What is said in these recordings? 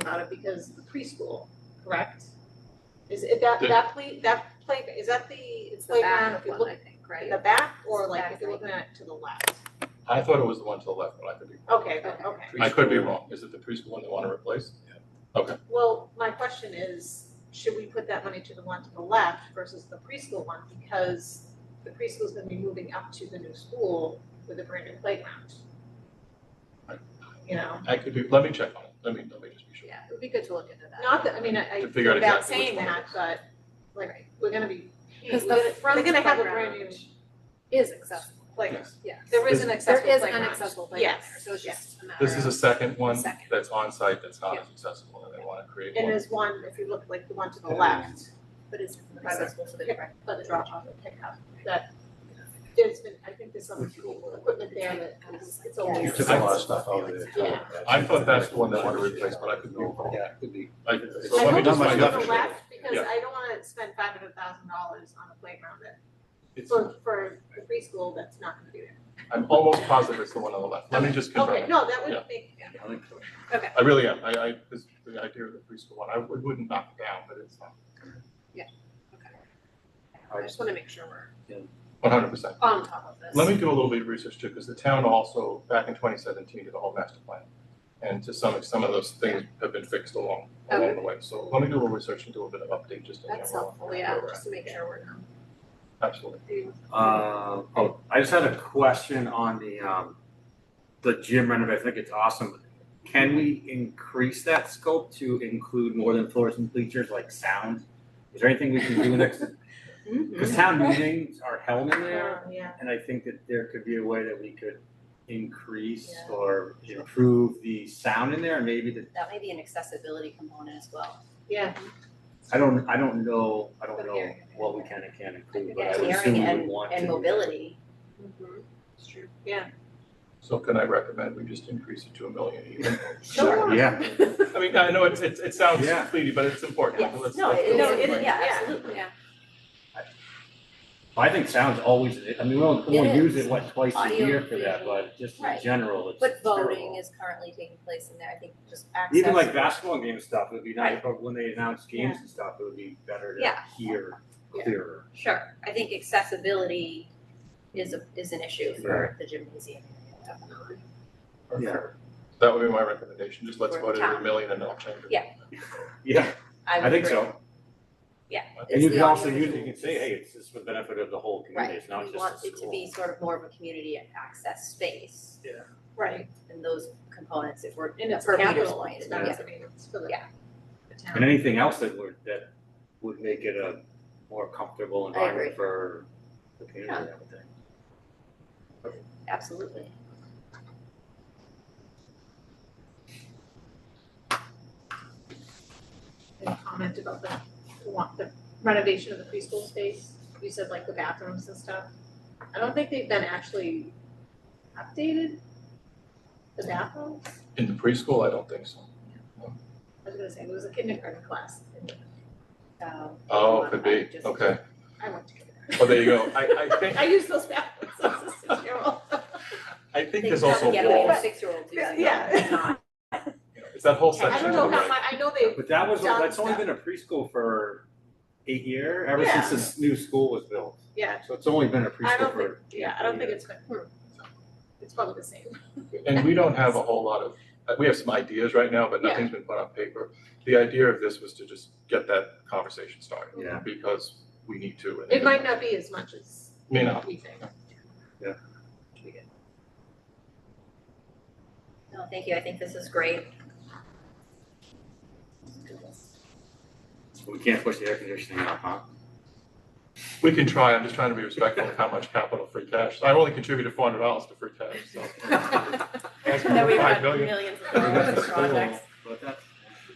about it because the preschool, correct? Is it that, The- that play, that play, is that the It's the playground, if back you one, look I think, in right? the back or It's like back, if you're I looking at it to the left? I thought it was the one to the left, but I could be, Okay, then, Okay. okay. I could be Preschool. wrong. Is it the preschool one they want to replace? Well, my question is, should we put that money to the one to the left versus the preschool one? Because the preschool's gonna be moving up to the new school with a brand new playground. Right. You know, I could be, let me check on it. Let me, let me just be sure. Yeah, it would be good to look into that. not that, I mean, I, I, To figure out without exactly which saying one it that, is. but like, we're gonna be, we're 'Cause the gonna, front they're gonna have a brand playground- new, Is accessible, like, Yes. yes. there is an There accessible is playground. an accessible playground there, Yes, so it's yes. just a matter of. This is a second one Second. that's on site that's not Yeah. as accessible and they want to create And one. there's one, if you look like the one to the It is. left, But it's accessible for the direct. but the drop off and pick up, that there's been, I think there's some Mm. equipment there that is, it's always. You took a lot of stuff out of there. too. Yeah. I thought that's the one they want to replace, but I could be wrong. Yeah, it could be. I I- So let me hope just it's much to find out. the left. left, because Yeah. I don't wanna spend five hundred thousand dollars on a playground that, It's- for, for the preschool, that's not gonna be there. I'm almost positive it's the one on the left. Let me just confirm. Okay, it. no, that would Yeah. make, I really am. I, I, this, the idea of the preschool one, I would- wouldn't knock it down, but it's I just wanna make sure we're one hundred percent. on top of this. Let me do a little bit of research too, because the town also, back in twenty seventeen, did a whole master plan. And to some, some of those things have been fixed along, along the way. So let me do a little research and do a bit of update just in general. That's on helpful, where yeah, we're at. just to make sure we're not. Absolutely. Uh, oh, I just had a question on the, um, the gym renovation, I think it's awesome. Can we increase that scope to include more than floors and bleachers, like sound? Is there anything we can do next, Mm-hmm. because town meetings are held in there, um, yeah, and I think that there could be a way that we could increase Yeah. or improve the sound in there, and maybe the, That may be an accessibility component as well. yeah, I don't, I don't know, I don't But know here- what we can and can't include, but I would Hearing assume we and, would want to. and mobility. Mm-hmm. It's true. So can I recommend we just increase it to a million even? sure. Yeah, I mean, I know it's, it's, it sounds Yeah. fleety, but it's important. Yes. Let's- No, let's it do no, is, it is, yeah, yeah. absolutely. Yeah. I think sound's always, I mean, we only, we It only use is. it, what, twice a Audio, year for that, visual. but just in Right. general, it's But voting terrible. is currently taking place in there, I think just access. Even like basketball game stuff, it'd be nice, but when they announce games and stuff, it would be better to Yeah. hear Yeah. clearer. Sure, I think accessibility is a, is an issue for the gymnasium. Perfect. Yeah. That would be my recommendation. Just let's For vote it at a town. million and I'll change it. Yeah. Yeah, I I would think agree. so. It's And you the can also audio use, it, you visual. can say, hey, it's just for the benefit of the whole community, Right, it's not we just the school. want it to be sort of more of a community access space Right, and those components if we're, and it's For Peter's capital point, expense, I mean, it's for the Yeah. the And town. anything else that would, that would make it a more comfortable agree. environment for the community, I would think. absolutely. And comment about the, the one- the renovation of the preschool space, you said like the bathrooms and stuff. I don't think they've been actually updated, the bathrooms. In the preschool, I don't think so. I was gonna say, there was a kindergarten class, and So, Oh, could be. Just- Okay. I went to kindergarten. Well, there you go. I, I think, I used those bathrooms, I was a six-year-old. I think they there's probably also get away with walls. six-year-olds Yeah, using yeah. them, it's not, you know, It's that whole I don't section to the know right. how much, I know they, But that was, Done that's only stuff. been a preschool for eight year, ever Yeah. since this new school was built. yeah, So it's only been I a preschool don't think, for. yeah, I don't think it's, been- hmm. it's probably the same. And we don't have a whole lot of, uh, we have some ideas right now, but Yeah. nothing's been put on paper. The idea of this was to just get that conversation started. Yeah. Because we need to. and It might not be as much as May not. we think. no, thank you, I think this is great. We can't push the air conditioning out, huh? We can try, I'm just trying to be respectful of how much capital free cash. I only contributed four hundred dollars to free cash, so. Asking That for we've five got million. millions of We got dollars the in school, projects. But that's.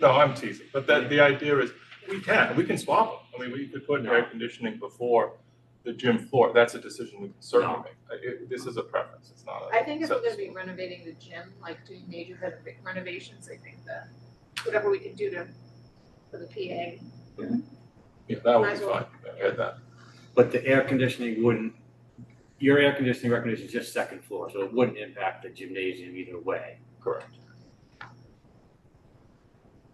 No, I'm teasing, but that, the idea is, we can, we can swap them. I mean, we could put air No. conditioning before the gym floor. That's a decision we can certainly No. make. Uh, it- This is a preference, it's not a. I think if we're set- gonna be renovating the gym, like doing major renov- renovations, I think that whatever we can do to, for the PA, Yeah, that would Might be as well. fine, I had that. But the air conditioning wouldn't, your air conditioning recommendation is just second floor, so it wouldn't impact the gymnasium either way. Correct.